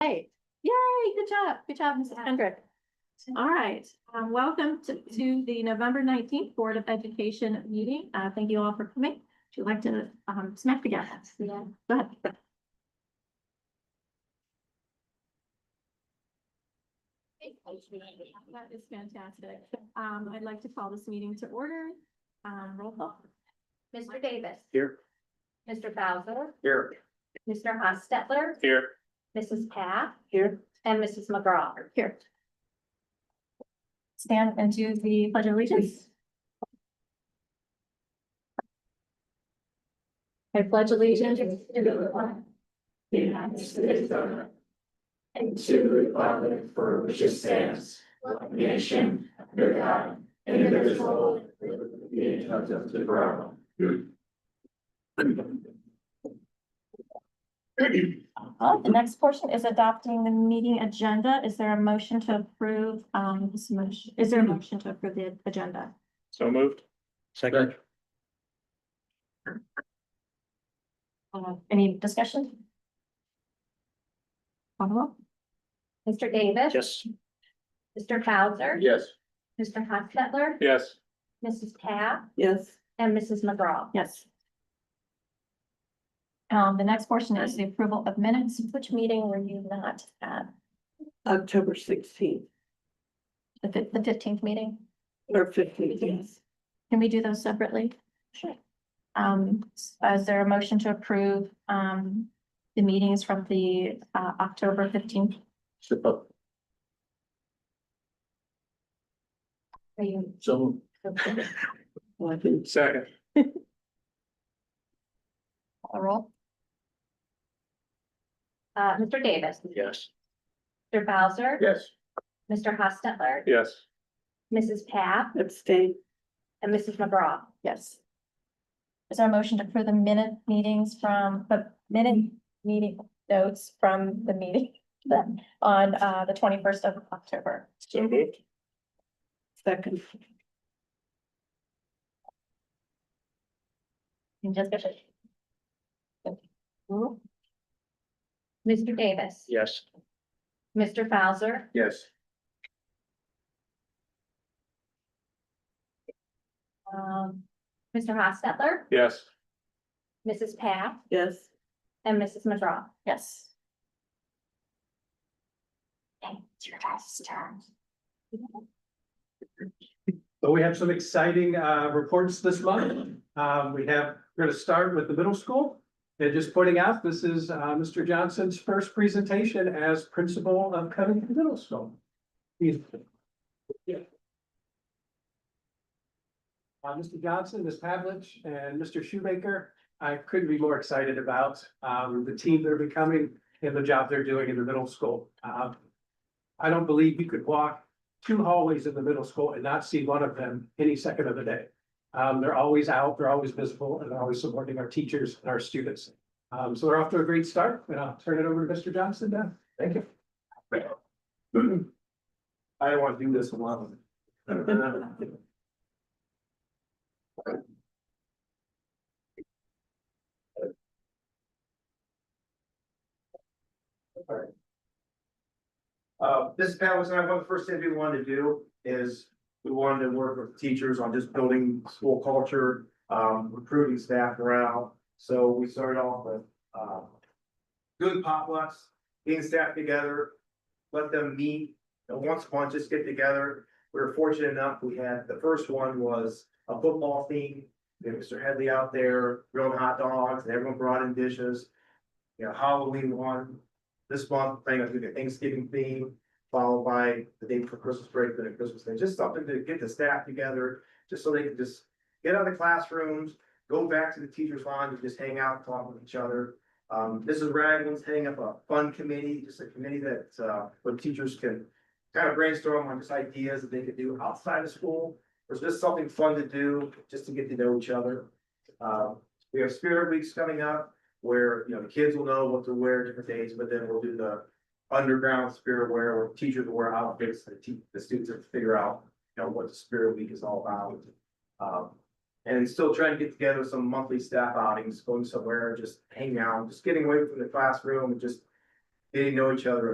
good job, good job, Mrs. Hendrick. All right, um, welcome to, to the November nineteenth Board of Education meeting. Uh, thank you all for coming. Would you like to, um, smack together? Yeah. Go ahead. That is fantastic. Um, I'd like to call this meeting to order. Um, roll call. Mr. Davis. Here. Mr. Bowser. Here. Mr. Hostetler. Here. Mrs. Paff. Here. And Mrs. McGraw. Here. Stand and do the pledge of allegiance. I pledge allegiance to the flag the United States of America, and to the republic for which it stands, one nation, under God, indivisible, with liberty and justice for all. Oh, The next portion is adopting the meeting agenda. Is there a motion to approve, um, this motion, is there a motion to approve the agenda? So moved. Second. Uh, Any discussion? Follow Mr. Davis. Yes. Mr. Bowser. Yes. Mr. Hostetler. Yes. Mrs. Paff. Yes, And Mrs. McGraw. Yes. Um, the next portion is the approval of minutes. Which meeting were you not at? October sixteenth The fif- the fifteenth meeting? or fifteenth, yes. Can we do those separately? Sure. Um, s- is there a motion to approve, um, the meetings from the, uh, October fifteenth? So Are you- moved. Well, I think Second. roll? Uh, Mr. Davis. Yes. Mr. Bowser. Yes. Mr. Hostetler. Yes. Mrs. Paff. abstain, And Mrs. McGraw. Yes. Is there a motion to approve the minute meetings from, the minute meeting notes from the meeting then on, uh, the twenty-first of October? So moved. second, Any discussion? Mr. Davis. Yes. Mr. Bowser. Yes. Um, Mr. Hostetler. Yes. Mrs. Paff. yes. And Mrs. McGraw. Yes. Thank you, guys. But we have some exciting uh reports this month. Um, we have, we're gonna start with the middle school. And just pointing out, this is uh Mr. Johnson's first presentation as principal of Covington Middle School. He's. Yeah. Uh, Mr. Johnson, Ms. Pavlich, and Mr. Shoemaker, I couldn't be more excited about um the team they're becoming and the job they're doing in the middle school. Uh, I don't believe you could walk two hallways in the middle school and not see one of them any second of the day. Um, they're always out, they're always visible, and they're always supporting our teachers and our students. Um, so we're off to a great start, and I'll turn it over to Mr. Johnson now. Thank you. I don't want to do this alone. Uh, this Pat was not, but the first thing we wanted to do is we wanted to work with teachers on just building school culture, um, recruiting staff morale. So we started off with, uh, doing potlucks, getting staff together, let them meet, and once a month, just get together. We were fortunate enough, we had, the first one was a football theme. We had Mr. Headley out there grilling hot dogs, and everyone brought in dishes. You know, Halloween one, this month, playing with the Thanksgiving theme, followed by the day for Christmas break, then a Christmas thing, just something to get the staff together, just so they can just get out of the classrooms, go back to the teachers' lounge and just hang out, and talk with each other. Um, Mrs. Ragland's heading up a fun committee, just a committee that, uh, where teachers can kind of brainstorm on just ideas that they could do outside of school, or just something fun to do, just to get to know each other. Uh, we have Spirit Weeks coming up, where, you know, the kids will know what to wear different days, but then we'll do the underground spirit wear, where teachers will wear outfits, the te- the students have to figure out, you know, what the spirit week is all about. Um, and still trying to get together some monthly staff outings, going somewhere, just hang out, just getting away from the classroom and just getting to know each other